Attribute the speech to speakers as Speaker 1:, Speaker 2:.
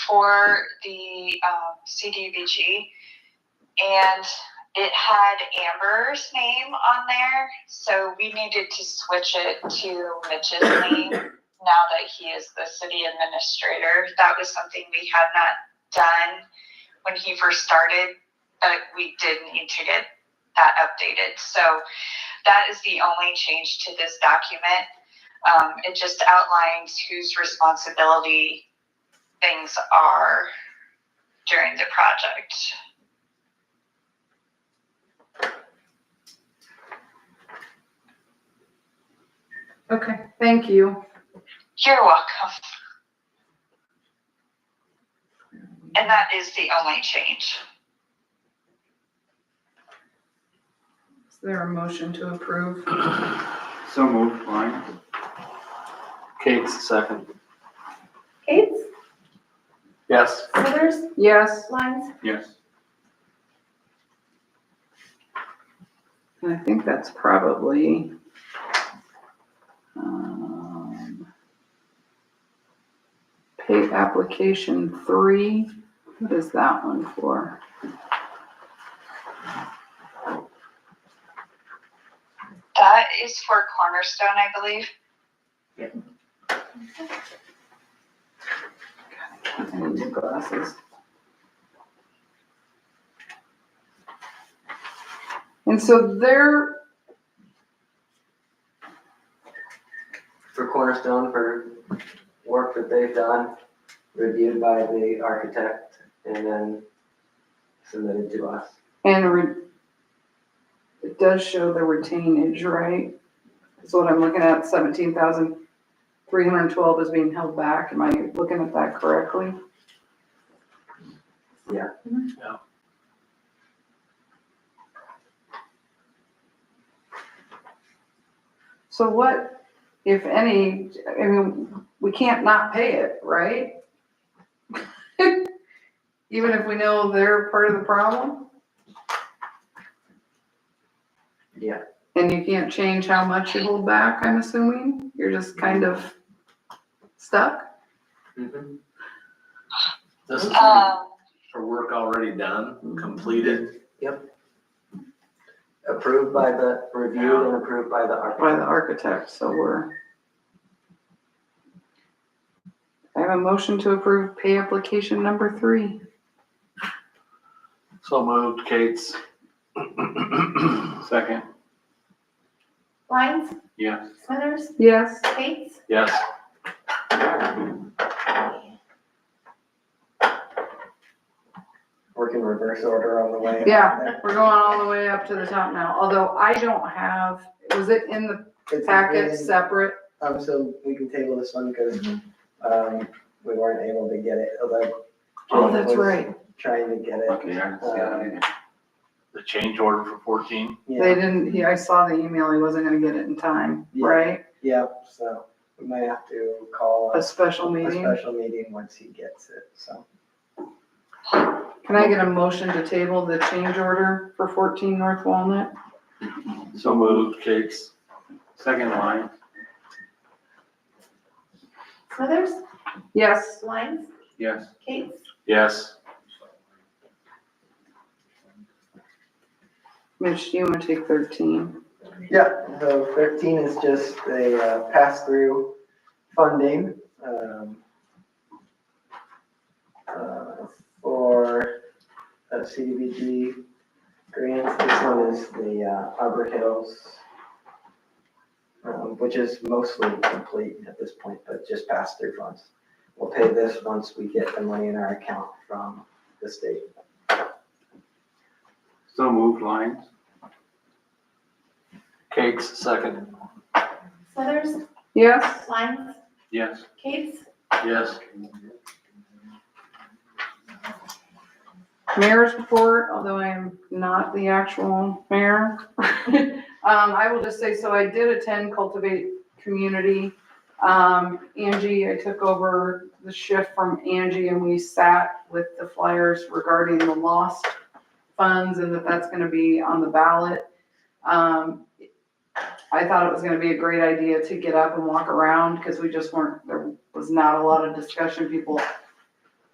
Speaker 1: for the um, CDBG, and it had Amber's name on there, so we needed to switch it to Mitch's name now that he is the city administrator. That was something we had not done when he first started, but we did need to get that updated. So that is the only change to this document. Um, it just outlines whose responsibility things are during the project.
Speaker 2: Okay, thank you.
Speaker 1: You're welcome. And that is the only change.
Speaker 2: Is there a motion to approve?
Speaker 3: So moved, Klein.
Speaker 4: Kate's second.
Speaker 5: Kate's,
Speaker 4: Yes.
Speaker 5: Smithers,
Speaker 2: Yes,
Speaker 5: Lines,
Speaker 3: Yes.
Speaker 2: and I think that's probably. um, Pay application three, what is that one for?
Speaker 1: That is for Cornerstone, I believe.
Speaker 2: I need glasses. And so there,
Speaker 6: for Cornerstone for work that they've done, reviewed by the architect, and then submitted to us.
Speaker 2: and re- it does show the retainage, right? That's what I'm looking at, seventeen thousand three hundred and twelve is being held back. Am I looking at that correctly? So what, if any, I mean, we can't not pay it, right? Even if we know they're part of the problem?
Speaker 6: Yeah.
Speaker 2: And you can't change how much you hold back, I'm assuming? You're just kind of stuck?
Speaker 4: This is
Speaker 1: Um,
Speaker 4: for work already done, completed.
Speaker 6: Approved by the, reviewed and approved by the
Speaker 2: by the
Speaker 6: architect.
Speaker 2: architect, so we're. I have a motion to approve pay application number three.
Speaker 4: So moved, Kate's.
Speaker 3: Second.
Speaker 5: Lines,
Speaker 3: Yes.
Speaker 5: Smithers,
Speaker 2: Yes,
Speaker 5: Kate's,
Speaker 4: Yes.
Speaker 6: Work in reverse order on the way.
Speaker 2: yeah, we're going all the way up to the top now, although I don't have, was it in the
Speaker 6: It's-
Speaker 2: packet separate?
Speaker 6: Um, so we can table this one because, um, we weren't able to get it, although.
Speaker 2: Mm-hmm. Oh, that's
Speaker 6: Jim was
Speaker 2: right.
Speaker 6: Trying to get it. um,
Speaker 3: Okay, I just got it.
Speaker 4: The change order for fourteen.
Speaker 2: They
Speaker 6: Yeah,
Speaker 2: didn't, he, I saw the email, he wasn't gonna get it in time,
Speaker 6: Yeah.
Speaker 2: right?
Speaker 6: yeah, so we might have to call
Speaker 2: A
Speaker 6: a
Speaker 2: special meeting.
Speaker 6: special meeting once he gets it, so.
Speaker 2: Can I get a motion to table the change order for fourteen North Walnut?
Speaker 4: So moved, Kate's.
Speaker 3: Second line.
Speaker 5: Smithers,
Speaker 2: Yes,
Speaker 5: Lines,
Speaker 3: Yes.
Speaker 5: Kate's,
Speaker 4: Yes.
Speaker 2: Mitch, do you wanna take thirteen?
Speaker 6: Yeah, so thirteen is just a uh, pass-through funding, um, uh, for uh, CDBG grants. This one is the uh, Arbor Hills, um, which is mostly complete at this point, but just pass-through funds. We'll pay this once we get the money in our account from the state.
Speaker 3: So moved, lines.
Speaker 4: Kate's second.
Speaker 5: Smithers,
Speaker 2: Yes,
Speaker 5: Lines,
Speaker 3: Yes.
Speaker 5: Kate's,
Speaker 4: Yes.
Speaker 2: mayor's report, although I am not the actual mayor. Um, I will just say, so I did attend Cultivate Community. Um, Angie, I took over the shift from Angie and we sat with the flyers regarding the lost funds and that that's gonna be on the ballot. Um, I thought it was gonna be a great idea to get up and walk around, cause we just weren't, there was not a lot of discussion. People